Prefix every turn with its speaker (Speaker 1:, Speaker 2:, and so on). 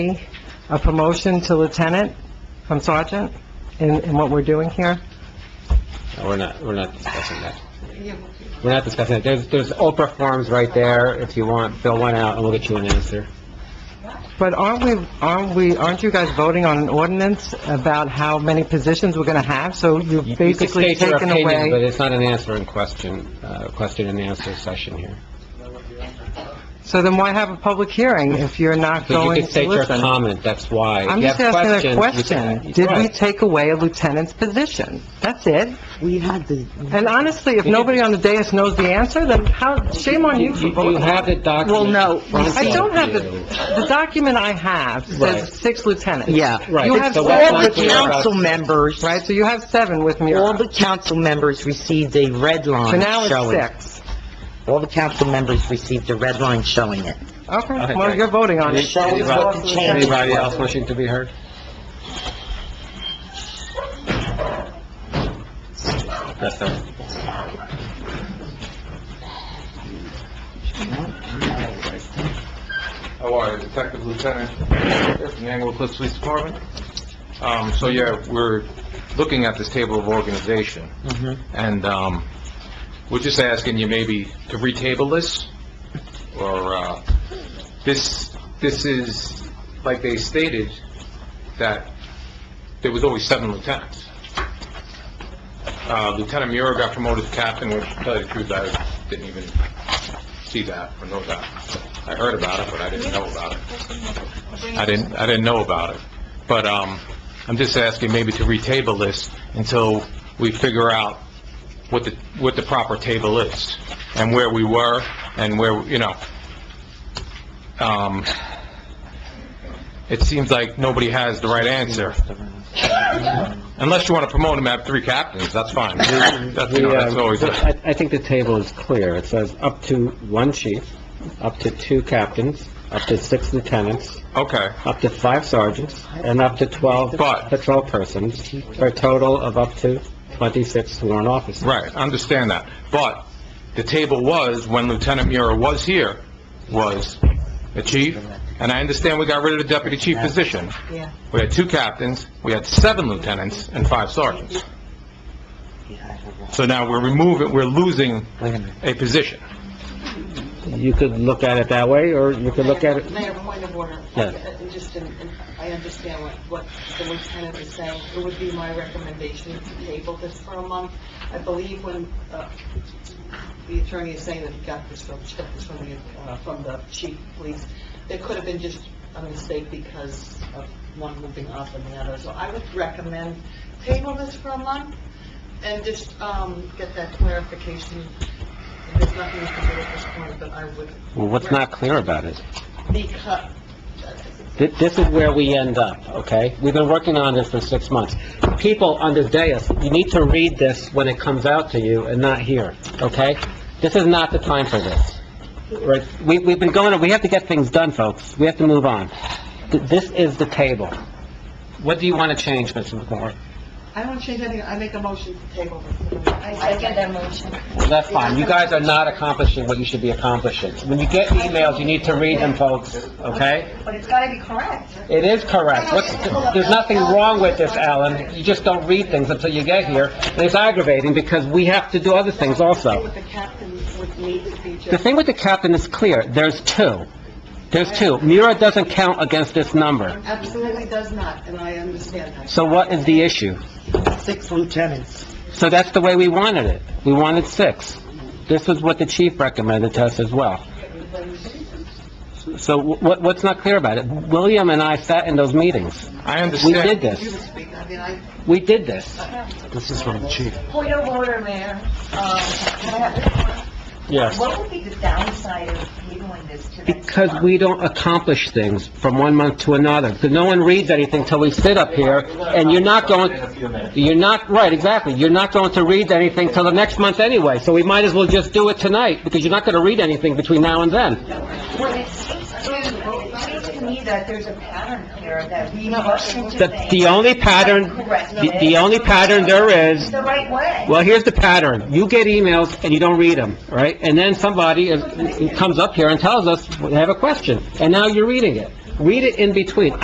Speaker 1: a promotion to lieutenant from sergeant in, in what we're doing here?
Speaker 2: No, We're not, we're not discussing that. We're not discussing it. There's, there's Oprah forms right there, if you want, fill one out and we'll get you an answer.
Speaker 1: But aren't we, aren't we, aren't you guys voting on an ordinance about how many positions we're gonna have? So
Speaker 2: You-
Speaker 1: you've
Speaker 2: you can
Speaker 1: basically
Speaker 2: state your
Speaker 1: taken
Speaker 2: opinion, But
Speaker 1: away,
Speaker 2: it's not an answer and question, uh, question and answer session here.
Speaker 1: so then why have a public hearing if you're not
Speaker 2: Because you
Speaker 1: going
Speaker 2: can
Speaker 1: to
Speaker 2: state your
Speaker 1: listen?
Speaker 2: comment, that's why.
Speaker 1: I'm
Speaker 2: If you
Speaker 1: just
Speaker 2: have
Speaker 1: asking a
Speaker 2: questions,
Speaker 1: question.
Speaker 2: you can-
Speaker 1: Did we
Speaker 2: Right.
Speaker 1: take away a lieutenant's position? That's it.
Speaker 3: We had the,
Speaker 1: And honestly, if
Speaker 2: We did.
Speaker 1: nobody on the dais knows the answer, then how, shame on you
Speaker 2: You
Speaker 1: for
Speaker 2: you
Speaker 1: voting.
Speaker 2: have the document.
Speaker 3: Well, no,
Speaker 2: in front
Speaker 1: I don't have the,
Speaker 2: of you.
Speaker 1: the document I have
Speaker 2: Right.
Speaker 1: says six lieutenants.
Speaker 3: yeah.
Speaker 2: Right.
Speaker 1: You have
Speaker 2: So
Speaker 1: said-
Speaker 2: that's
Speaker 3: All
Speaker 2: not
Speaker 3: the
Speaker 2: clear about-
Speaker 3: council members,
Speaker 1: Right, so you have seven with me.
Speaker 3: all the council members received a red
Speaker 1: So
Speaker 3: line
Speaker 1: now
Speaker 3: showing.
Speaker 1: it's six.
Speaker 3: All the council members received a red line showing it.
Speaker 1: Okay,
Speaker 2: Okay,
Speaker 1: well,
Speaker 2: great.
Speaker 1: you're voting on it.
Speaker 3: Michelle,
Speaker 1: It's
Speaker 3: you're
Speaker 1: off
Speaker 3: welcome
Speaker 1: the
Speaker 3: to
Speaker 1: table.
Speaker 3: change.
Speaker 2: Anybody else wishing to be heard? Yes, sir.
Speaker 4: How are you, Detective Lieutenant from the Anglo Cliffs Police Department? Um, so yeah, we're looking at this table of organization, and, um, we're just asking you maybe to retable this, or, uh, this, this is, like they stated, that there was always seven lieutenants. Uh, Lieutenant Muir got promoted to captain, which, to tell you the truth, I didn't even see that or know that. I heard about it, but I didn't know about it. I didn't, I didn't know about it. But, um, I'm just asking maybe to retable this until we figure out what the, what the proper table is, and where we were, and where, you know. Um, it seems like nobody has the right answer. Unless you want to promote him at three captains, that's fine. That's, you know, that's always,
Speaker 2: The, uh, I I think the table is clear. It says up to one chief, up to two captains, up to six lieutenants,
Speaker 4: okay.
Speaker 2: up to five sergeants, and up to 12
Speaker 4: But-
Speaker 2: patrol persons, for a total of up to 26 sworn officers.
Speaker 4: Right, I understand that. But the table was, when Lieutenant Mura was here, was the chief, and I understand we got rid of the deputy chief position.
Speaker 3: Yeah.
Speaker 4: We had two captains, we had seven lieutenants, and five sergeants. So now we're removing, we're losing
Speaker 3: Wait a minute.
Speaker 4: a position.
Speaker 2: You could look at it that way, or you could look at it...
Speaker 5: Mayor, point of order.
Speaker 2: Yes.
Speaker 5: I- I Just, in- in- I understand what, what the lieutenant is saying. It would be my recommendation to table this for a month. I believe when, uh, the attorney is saying that he got this from, she got this from the, uh, from the chief of police, there could have been just a mistake because of one moving up and the other. So I would recommend table this for a month and just, um, get that clarification. There's nothing you can do at this point, but I would.
Speaker 2: Well, what's not clear about it?
Speaker 5: Because,
Speaker 2: Th- This is where we end up, okay? We've been working on this for six months. People on this dais, you need to read this when it comes out to you and not here, okay? This is not the time for this. Right? We, we've been going, we have to get things done, folks. We have to move on. Th- This is the table. What do you want to change, Mr. McMorro?
Speaker 5: I don't change anything, I make a motion to table this.
Speaker 6: I second that motion.
Speaker 2: That's fine. You guys are not accomplishing what you should be accomplishing. When you get emails, you need to read them, folks, okay?
Speaker 6: But it's gotta be correct.
Speaker 2: It is correct. What's, there's nothing wrong with this, Alan. You just don't read things until you get here. And it's aggravating because we have to do other things also.
Speaker 5: With the captain would need to be
Speaker 2: The
Speaker 5: just,
Speaker 2: thing with the captain is clear. There's two. There's two. Mura doesn't count against this number.
Speaker 5: absolutely does not, and I understand that.
Speaker 2: So what is the issue?
Speaker 3: Six lieutenants.
Speaker 2: So that's the way we wanted it. We wanted six. This was what the chief recommended to us as well. So what, what's not clear about it? William and I sat in those meetings.
Speaker 4: I
Speaker 2: We
Speaker 4: understand.
Speaker 2: did
Speaker 5: You
Speaker 2: this.
Speaker 5: would speak, I mean, I,
Speaker 2: We did this.
Speaker 6: Point of order, Mayor. Um, can I have-
Speaker 2: Yes.
Speaker 6: What would be the downside of tabling this to next
Speaker 2: Because
Speaker 6: month?
Speaker 2: we don't accomplish things from one month to another, because no one reads anything till we sit up here, and you're not going, you're not, right, exactly, you're not going to read anything till the next month anyway, so we might as well just do it tonight, because you're not gonna read anything between now and then.
Speaker 6: Well, it seems to, it seems to me that there's a pattern here that we rush into
Speaker 2: The,
Speaker 6: things.
Speaker 2: the only pattern,
Speaker 6: Correct.
Speaker 2: the, the only pattern there is,
Speaker 6: The right way.
Speaker 2: well, here's the pattern, you get emails and you don't read them, right? And then somebody is- comes up here and tells us, they have a question, and now you're reading it. Read it in between.